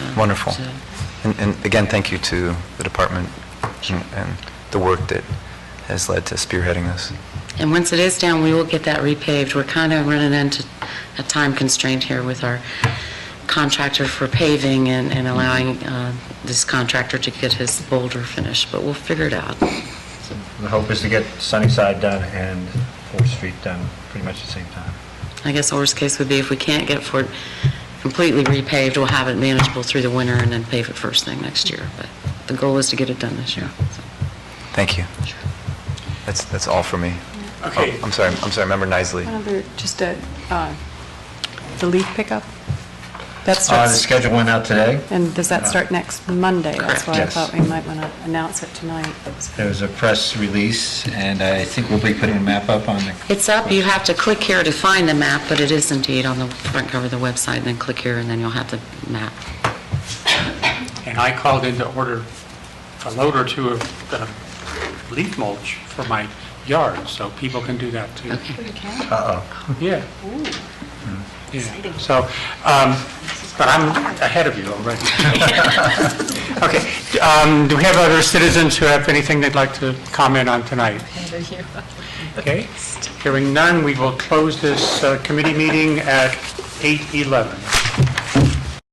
Wonderful. So- And- And again, thank you to the department and- and the work that has led to spearheading this. And once it is down, we will get that repaved. We're kind of running into a time constraint here with our contractor for paving and and allowing uh, this contractor to get his boulder finished, but we'll figure it out. The hope is to get Sunnyside done and Fourth Street done pretty much at the same time. I guess the worst case would be if we can't get Fort completely repaved, we'll have it manageable through the winter and then pave it first thing next year. But the goal is to get it done this year. so. Thank you. That's, that's all for me. Okay. Oh, I'm sorry, I'm sorry, Member Nisley. Another, just a, uh, the leaf pickup? Uh, That The starts, schedule went out today. and does that start next Monday? That's why I Correct. thought we might want to announce it tonight. There was a press release, and I think we'll be putting a map up on the, It's up, you have to click here to find the map, but it is indeed on the front cover of the website, and then click here, and then you'll have the map. And I called in to order a load or two of uh, leaf mulch for my yard, so people can do that too. Okay. uh-oh. Yeah. Yeah. So, um, but I'm ahead of you already. Okay. um, Do we have other citizens who have anything they'd like to comment on tonight? Okay. Hearing none, we will close this uh, committee meeting at 8:11.